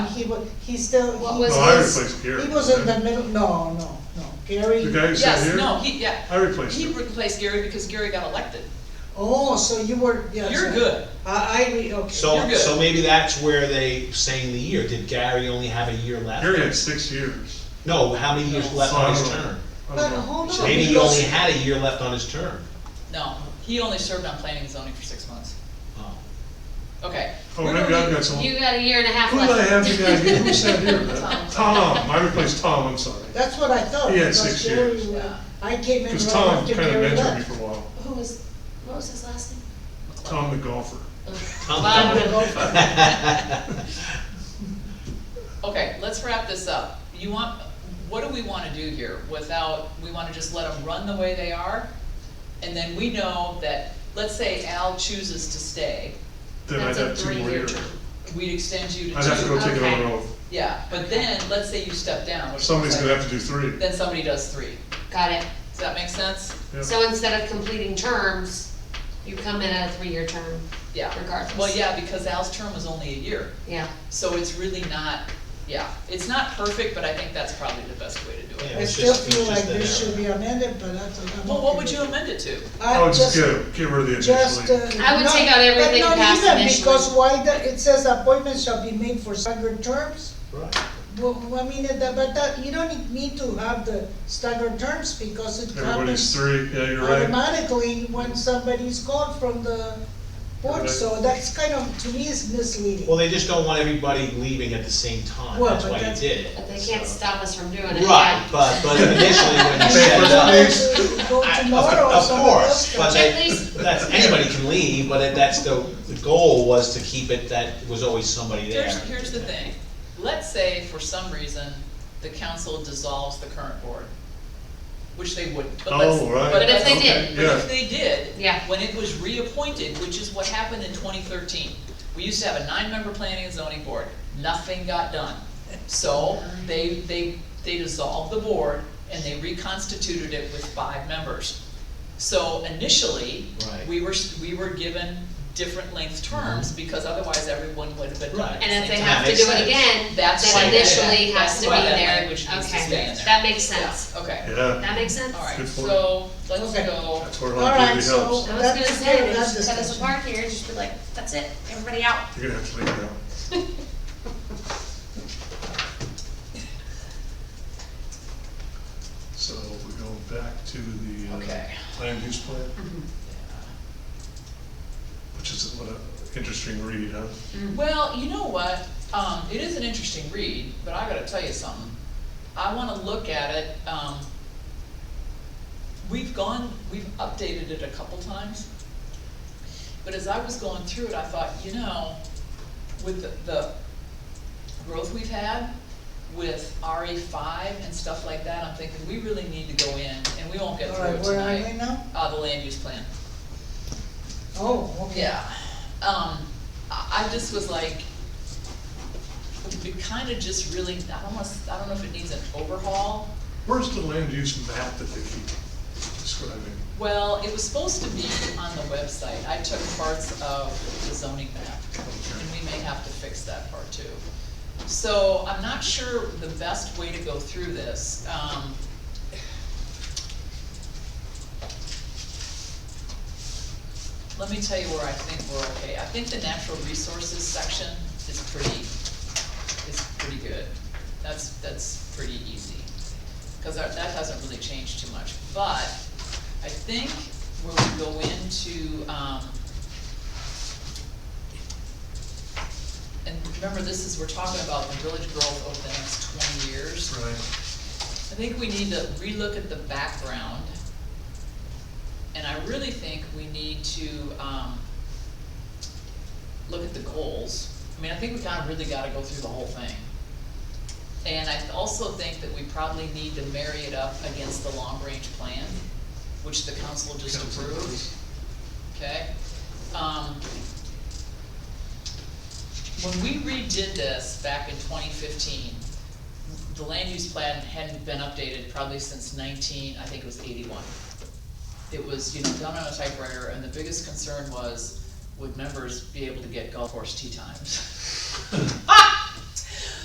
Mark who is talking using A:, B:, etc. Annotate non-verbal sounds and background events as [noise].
A: he was, he still,
B: What
A: he,
B: was
C: No, I
B: his-
C: replaced Gary.
A: he was in the middle, no, no, no, Gary.
C: The guy who sat
B: Yes,
C: here?
B: no, he, yeah.
C: I replaced
B: He
C: him.
B: replaced Gary because Gary got elected.
A: Oh, so you were, yeah.
B: You're
A: so-
B: good.
A: I, I, re- okay.
B: You're
D: So,
B: good.
D: so maybe that's where they saying the year, did Gary only have a year left?
C: Gary had six years. Oh,
D: No, how many years
B: No.
D: left on his
C: So I don't know.
D: term?
C: I
A: But
C: don't know.
A: hold on,
D: Maybe he only
A: because,
D: had a year left on his term.
B: No, he only served on planning and zoning for six months.
D: Oh.
B: Okay.
C: Oh,
B: We're
C: maybe
B: gonna-
C: I've got some.
E: You got a year and a half
C: Who did I have
E: left.
C: the guy here? Who sat here?
E: [laughs] Tom.
C: Tom, I replaced Tom, I'm sorry.
A: that's what I thought.
C: He had
A: because
C: six
A: Gary
C: years.
A: was- I came in right
C: Because Tom
A: after
C: kind of
A: Gary
C: mentored me
A: left.
C: for a while.
E: Who was, what was his last name?
C: Tom the golfer.
D: Tom
B: Bob.
D: Dunn.
B: Okay, let's wrap this up. You want, what do we wanna do here without, we wanna just let them run the way they are? And then we know that, let's say Al chooses to stay,
C: Then I'd
E: That's a
C: have two more
E: three-year
C: years.
E: term.
B: we'd extend you to two.
C: I'd have to go take
E: Okay.
C: another oath.
B: Yeah, but then, let's say you step down, which.
C: Somebody's
B: looks
C: gonna
B: like-
C: have to do three.
B: Then somebody does three.
E: Got it.
B: Does that make sense?
C: Yeah.
E: So instead of completing terms, you come in at a three-year term,
B: Yeah.
E: Regardless.
B: Well, yeah, because Al's term was only a year,
E: yeah.
B: so it's really not, yeah, it's not perfect, but I think that's probably the best way to do it.
D: Yeah.
A: I
D: It's
A: still
D: just- it's
A: feel
D: just
A: like
D: an
A: this
D: error.
A: should be amended, but that's. I'm
B: Well,
A: okay
B: what would
A: with
B: you
A: it.
B: amend it to?
A: I
C: Oh, just
A: just-
C: get, get rid of the
A: Just, uh.
C: initially.
E: I would
A: not-
E: take out everything
A: but not
E: past
A: even,
E: initially.
A: Because why the, it says appointments shall be made for staggered terms?
D: [laughs] Right.
A: Well, I mean, uh, that- but that, you don't need to have the staggered terms because it happens
C: Everybody's three, yeah, you're right.
A: automatically when somebody's called from the board, so that's kind of, to me, is misleading.
D: Well, they just don't want everybody leaving at the same time,
A: Well,
D: that's
A: but
D: why you
A: that's-
D: did it.
E: But they can't
D: so.
E: stop us from doing it,
D: Right,
E: yeah.
D: but, but initially
C: [laughs]
D: when you
C: Papers,
D: set it up.
C: please.
A: Go
D: I- of-
A: tomorrow or
D: Of
A: somebody else comes.
D: course, but
E: At
D: they-
E: least-
D: that's, anybody can leave, but it- that's the, the goal was to keep it that it was always somebody there.
B: Here's, here's the thing, let's say for some reason, the council dissolves the current board, which they wouldn't, but let's.
C: Oh, right.
E: But if they
C: Okay,
E: did-
B: But if
C: Yeah,
B: they did.
E: Yeah.
B: When it was reappointed, which is what happened in twenty thirteen, we used to have a nine-member planning and zoning board, nothing got done. So they, they, they dissolved the board and they reconstituted it with five members. So initially,
D: Right.
B: we were, s- we were given different length
C: Mm-hmm.
B: terms because otherwise everyone would have been done at
D: Right.
B: the
E: And if
B: same
E: they
B: time.
E: have to
D: makes
E: do it
D: sense.
E: again,
B: That's why they
E: then
B: did
E: initially
B: that.
E: has to
B: That's
E: be
B: why that
E: there.
B: language needs to stay
E: Okay,
B: in there.
E: that makes sense.
B: Okay,
C: yeah,
E: That makes sense.
B: alright,
C: Good point.
B: so let's
A: Okay.
B: go,
C: that's where
A: All right,
C: longevity
A: so-
C: helps.
E: I was gonna
A: That's
E: say,
A: good,
E: they
A: that's
E: should cut us
A: discussion.
E: apart here and just be like, that's it, everybody out.
C: You're gonna have to leave now. So we go back to the, uh,
B: okay.
C: land use plan, which is what a interesting read, huh?
A: Mm.
B: Well, you know what, um, it is an interesting read, but I gotta tell you something. I wanna look at it, um, we've gone, we've updated it a couple times. But as I was going through it, I thought, you know, with the, the growth we've had with RE five and stuff like that, I'm thinking, we really need to go in, and we won't get
A: All
B: through it
A: right, where are we
B: tonight.
A: now?
B: Uh, the land use plan.
A: Oh, okay.
B: Yeah, um, I, I just was like, we kinda just really, I don't wanna, s- I don't know if it needs an overhaul.
C: Where's the land use map that they keep describing?
B: Well, it was supposed to be on the website, I took parts of the zoning map, and we may have to fix that part too. So I'm not sure the best way to go through this, um. Let me tell you where I think we're okay, I think the natural resources section is pretty, is pretty good, that's, that's pretty easy. Cause our- that hasn't really changed too much, but I think where we go into, um, and remember, this is, we're talking about the village growth over the next twenty years.
C: Right,
B: I think we need to relook at the background. And I really think we need to, um, look at the goals. I mean, I think we kinda really gotta go through the whole thing. And I also think that we probably need to marry it up against the long-range plan, which the council just
C: Council
B: approved.
C: approves.
B: Okay? Um, when we redid this back in twenty fifteen, the land use plan hadn't been updated probably since nineteen, I think it was eighty-one. It was, you know, done on a typewriter, and the [laughs] biggest concern was, would members be able to get golf course tee times?